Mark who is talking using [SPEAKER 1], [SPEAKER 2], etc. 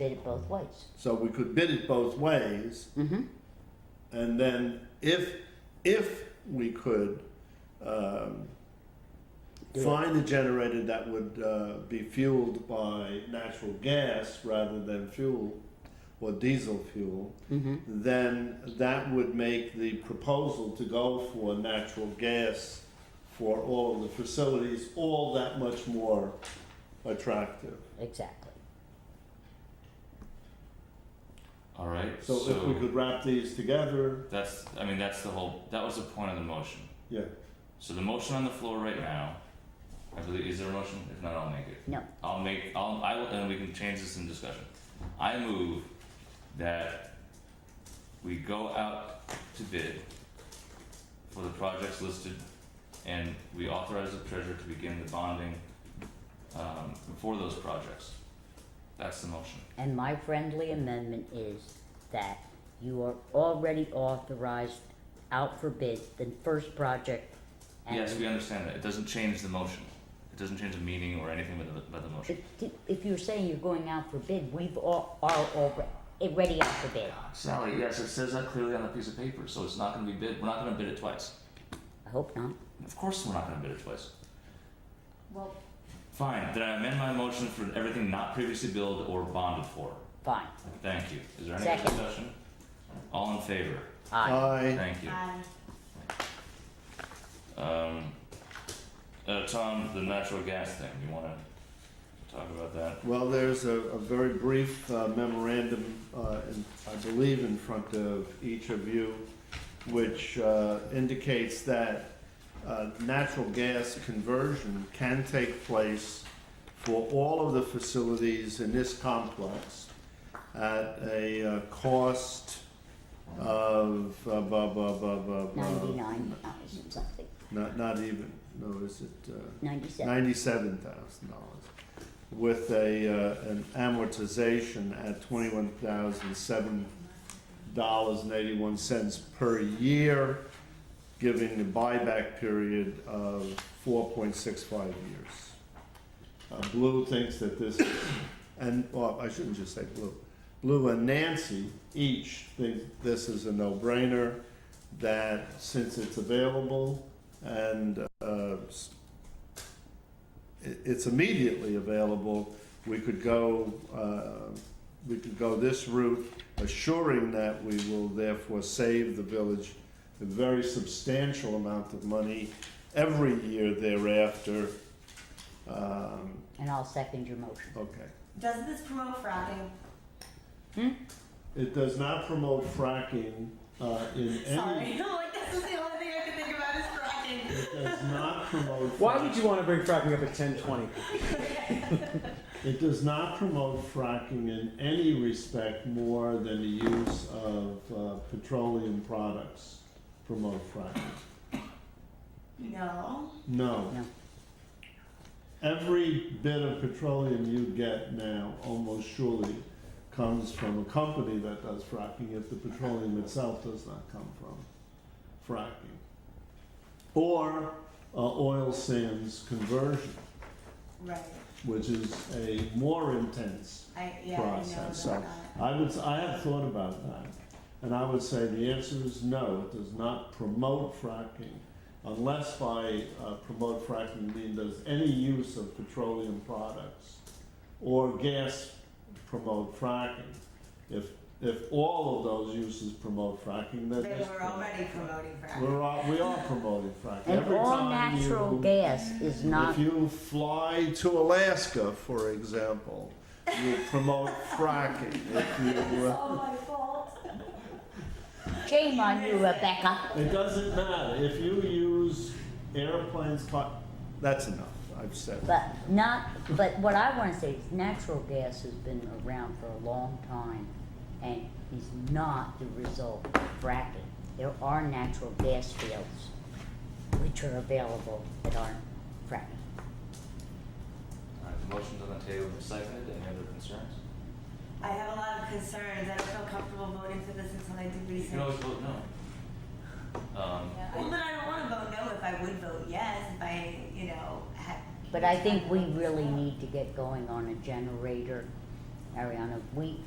[SPEAKER 1] bid it both ways.
[SPEAKER 2] So we could bid it both ways. And then if, if we could, um, find a generator that would, uh, be fueled by natural gas rather than fuel or diesel fuel, then that would make the proposal to go for natural gas for all of the facilities all that much more attractive.
[SPEAKER 1] Exactly.
[SPEAKER 3] All right.
[SPEAKER 2] So if we could wrap these together,
[SPEAKER 3] that's. I mean, that's the whole. That was the point of the motion.
[SPEAKER 2] yeah,
[SPEAKER 3] So the motion on the floor right now. I believe is there a motion? If not, I'll make it.
[SPEAKER 1] No.
[SPEAKER 3] I'll make. I'll. I will, and we can change this in discussion. I move that we go out to bid for the projects listed, and we authorize the treasurer to begin the bonding um, for those projects. That's the motion.
[SPEAKER 1] And my friendly amendment is that you are already authorized out for bid, the first project. and-
[SPEAKER 3] Yes, we understand that. It doesn't change the motion. It doesn't change the meaning or anything about the, about the motion.
[SPEAKER 1] If, if you're saying you're going out for bid, we've all, are already, already out for bid.
[SPEAKER 3] Sally, yes, it says that clearly on the piece of paper, so it's not gonna be bid, we're not gonna bid it twice.
[SPEAKER 1] I hope not.
[SPEAKER 3] Of course we're not gonna bid it twice.
[SPEAKER 4] Well,
[SPEAKER 3] Fine, then I amend my motion for everything not previously billed or bonded for.
[SPEAKER 1] Fine.
[SPEAKER 3] Thank you. Is there any
[SPEAKER 1] Second.
[SPEAKER 3] discussion? All in favor?
[SPEAKER 1] Aye.
[SPEAKER 2] I,
[SPEAKER 3] Thank you.
[SPEAKER 4] I,
[SPEAKER 3] Um, uh, Tom, the natural gas thing, you wanna talk about that?
[SPEAKER 2] well, there's a, a very brief uh, memorandum, uh, in- I believe in front of each of you, which uh, indicates that uh, natural gas conversion can take place for all of the facilities in this complex at a uh, cost of, uh, blah, blah, blah, blah, blah.
[SPEAKER 1] Ninety-nine thousand something,
[SPEAKER 2] Not, not even, no, is it, uh?
[SPEAKER 1] ninety-seven.
[SPEAKER 2] ninety-seven thousand dollars with a, uh, an amortization at twenty-one thousand seven dollars and eighty-one cents per year, giving the buyback period of four point six five years. Uh, Blue thinks that this, is- and, well, I shouldn't just say Blue. Blue and Nancy each think this is a no-brainer, that since it's available and, uh, s- it- it's immediately available. We could go, uh, we could go this route, assuring that we will therefore save the village a very substantial amount of money every year thereafter. Um,
[SPEAKER 1] And I'll second your motion.
[SPEAKER 2] Okay.
[SPEAKER 4] does this promote fracking?
[SPEAKER 2] It does not promote fracking uh, in any,
[SPEAKER 4] Sorry, like this is the only thing I can think about is fracking.
[SPEAKER 2] it does not promote.
[SPEAKER 5] Why would you want to bring fracking up at ten twenty?
[SPEAKER 2] It does not promote fracking in any respect more than the use of uh, petroleum products promote fracking.
[SPEAKER 4] No.
[SPEAKER 2] No.
[SPEAKER 1] No.
[SPEAKER 2] Every bit of petroleum you get now almost surely comes from a company that does fracking if the petroleum itself does not come from fracking. Or uh, oil sands conversion,
[SPEAKER 4] Right.
[SPEAKER 2] which is a more intense
[SPEAKER 4] I yeah. I know
[SPEAKER 2] process. So
[SPEAKER 4] about that.
[SPEAKER 2] I would, s- I have thought about that, and I would say the answer is no, it does not promote fracking. Unless by uh, promote fracking mean does any use of petroleum products or gas promote fracking. If, if all of those uses promote fracking, then
[SPEAKER 4] They
[SPEAKER 2] this
[SPEAKER 4] were
[SPEAKER 2] promotes
[SPEAKER 4] already
[SPEAKER 2] fracking.
[SPEAKER 4] promoting fracking.
[SPEAKER 2] We're all, we are promoting fracking.
[SPEAKER 1] And
[SPEAKER 2] Every
[SPEAKER 1] all
[SPEAKER 2] time
[SPEAKER 1] natural
[SPEAKER 2] you-
[SPEAKER 1] gas is not,
[SPEAKER 2] if you fly to Alaska, for example, you promote fracking. If you,
[SPEAKER 4] It's
[SPEAKER 2] uh,
[SPEAKER 4] all Oh my fault.
[SPEAKER 1] shame on you, Rebecca.
[SPEAKER 2] it doesn't matter. If you use airplanes, co- that's enough. I've said.
[SPEAKER 1] But not, but what I wanna say is natural gas has been around for a long time and is not the result of fracking. There are natural gas fields which are available that aren't fracking.
[SPEAKER 3] Alright, the motion's on the table, and seconded, any other concerns?
[SPEAKER 4] I have a lot of concerns. I don't feel comfortable voting for this until I do
[SPEAKER 3] You
[SPEAKER 4] research.
[SPEAKER 3] can always vote no. Um,
[SPEAKER 4] Yeah. Well, but I don't want to vote no if I would vote yes if I, you know, had.
[SPEAKER 1] But I think we really need to get going on a generator Ariana, we,